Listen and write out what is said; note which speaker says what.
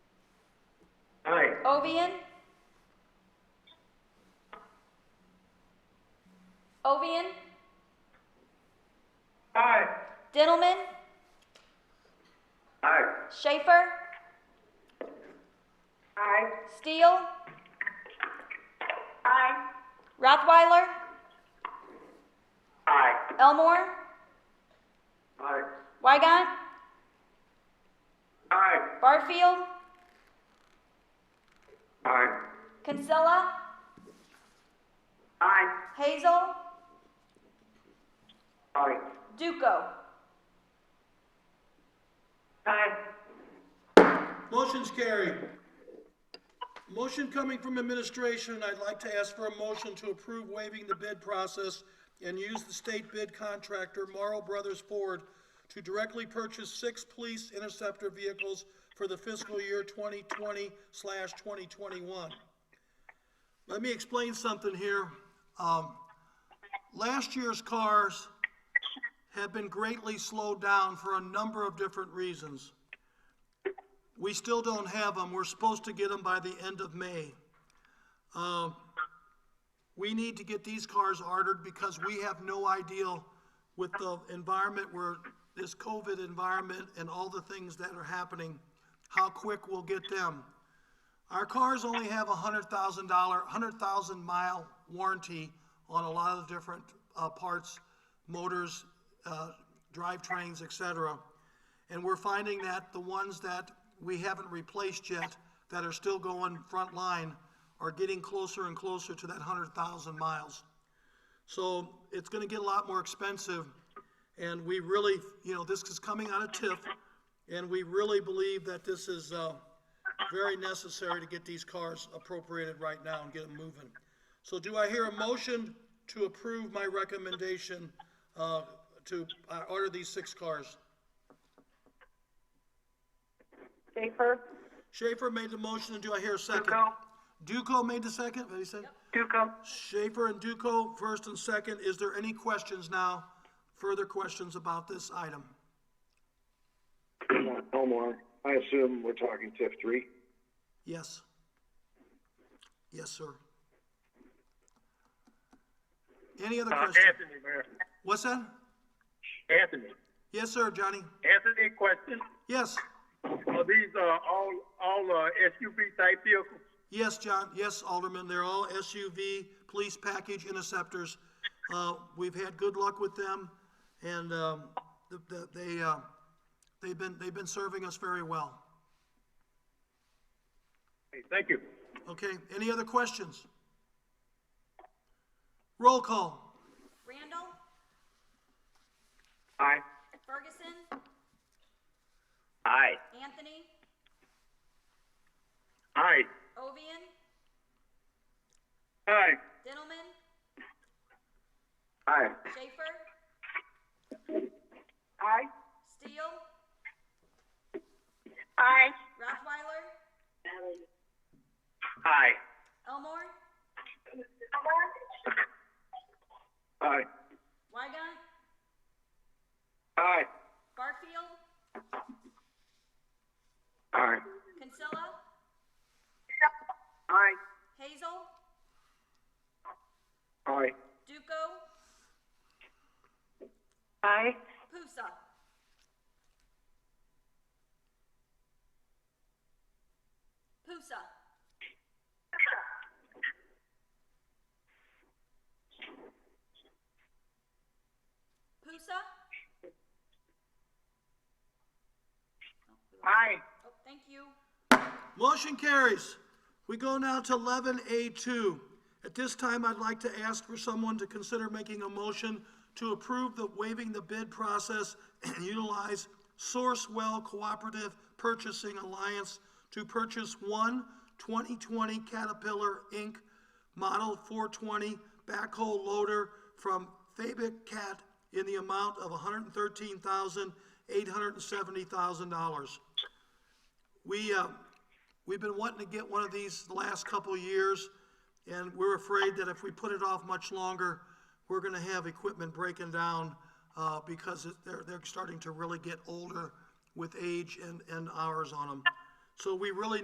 Speaker 1: Ovian? Ovian?
Speaker 2: Aye.
Speaker 1: Dintelman?
Speaker 2: Aye.
Speaker 1: Schaefer?
Speaker 2: Aye.
Speaker 1: Steele?
Speaker 2: Aye.
Speaker 1: Rothweiler?
Speaker 2: Aye.
Speaker 1: Elmore?
Speaker 2: Aye.
Speaker 1: Weigant?
Speaker 2: Aye.
Speaker 1: Barfield?
Speaker 2: Aye.
Speaker 1: Kinsella?
Speaker 2: Aye.
Speaker 1: Hazel?
Speaker 2: Aye.
Speaker 1: Duco?
Speaker 2: Aye.
Speaker 3: Motion's carried. Motion coming from administration, I'd like to ask for a motion to approve waiving the bid process and use the state bid contractor Morrow Brothers Ford to directly purchase six police interceptor vehicles for the fiscal year 2020 slash 2021. Let me explain something here. Um, Last year's cars have been greatly slowed down for a number of different reasons. We still don't have them. We're supposed to get them by the end of May. Um, We need to get these cars ordered because we have no idea with the environment where, this COVID environment and all the things that are happening, how quick we'll get them. Our cars only have a hundred thousand dollar, hundred thousand mile warranty on a lot of different, uh, parts, motors, uh, drivetrains, et cetera. And we're finding that the ones that we haven't replaced yet, that are still going front line, are getting closer and closer to that hundred thousand miles. So it's gonna get a lot more expensive, and we really, you know, this is coming out of TIF, and we really believe that this is, uh, very necessary to get these cars appropriated right now and get them moving. So do I hear a motion to approve my recommendation, uh, to, uh, order these six cars?
Speaker 2: Schaefer?
Speaker 3: Schaefer made the motion, and do I hear a second?
Speaker 2: Duco?
Speaker 3: Duco made the second, what did he say?
Speaker 2: Duco?
Speaker 3: Schaefer and Duco, first and second. Is there any questions now? Further questions about this item?
Speaker 4: Elmore, I assume we're talking TIF three?
Speaker 3: Yes. Yes, sir. Any other question?
Speaker 5: Anthony, Mayor.
Speaker 3: What's that?
Speaker 5: Anthony.
Speaker 3: Yes, sir, Johnny.
Speaker 5: Anthony, question.
Speaker 3: Yes,
Speaker 5: Are these, uh, all, all, uh, SUV type vehicles?
Speaker 3: yes, John, yes, Alderman, they're all SUV, police package interceptors. Uh, we've had good luck with them, and, um, the, the, they, uh, they've been, they've been serving us very well.
Speaker 5: Hey, Thank you.
Speaker 3: Okay, any other questions? Roll call.
Speaker 1: Randall?
Speaker 2: Aye.
Speaker 1: Ferguson?
Speaker 2: Aye.
Speaker 1: Anthony?
Speaker 5: Aye.
Speaker 1: Ovian?
Speaker 5: Aye.
Speaker 1: Dintelman?
Speaker 2: Aye.
Speaker 1: Schaefer?
Speaker 2: Aye.
Speaker 1: Steele?
Speaker 2: Aye.
Speaker 1: Rothweiler?
Speaker 2: Aye.
Speaker 1: Elmore?
Speaker 2: Aye.
Speaker 1: Weigant?
Speaker 2: Aye.
Speaker 1: Barfield?
Speaker 2: Aye.
Speaker 1: Kinsella?
Speaker 2: Aye.
Speaker 1: Hazel?
Speaker 2: Aye.
Speaker 1: Duco?
Speaker 2: Aye.
Speaker 1: Pusa? Pusa? Pusa?
Speaker 2: Aye.
Speaker 1: Oh, thank you.
Speaker 3: Motion carries. We go now to eleven A two. At this time, I'd like to ask for someone to consider making a motion to approve the waiving the bid process and utilize Sourcewell Cooperative Purchasing Alliance to purchase one 2020 Caterpillar Inc. Model four twenty backhoe loader from Fabic Cat in the amount of hundred and thirteen thousand, eight hundred and seventy thousand dollars. We, uh, we've been wanting to get one of these the last couple of years, and we're afraid that if we put it off much longer, we're gonna have equipment breaking down, uh, because it- they're, they're starting to really get older with age and, and hours on them. So we really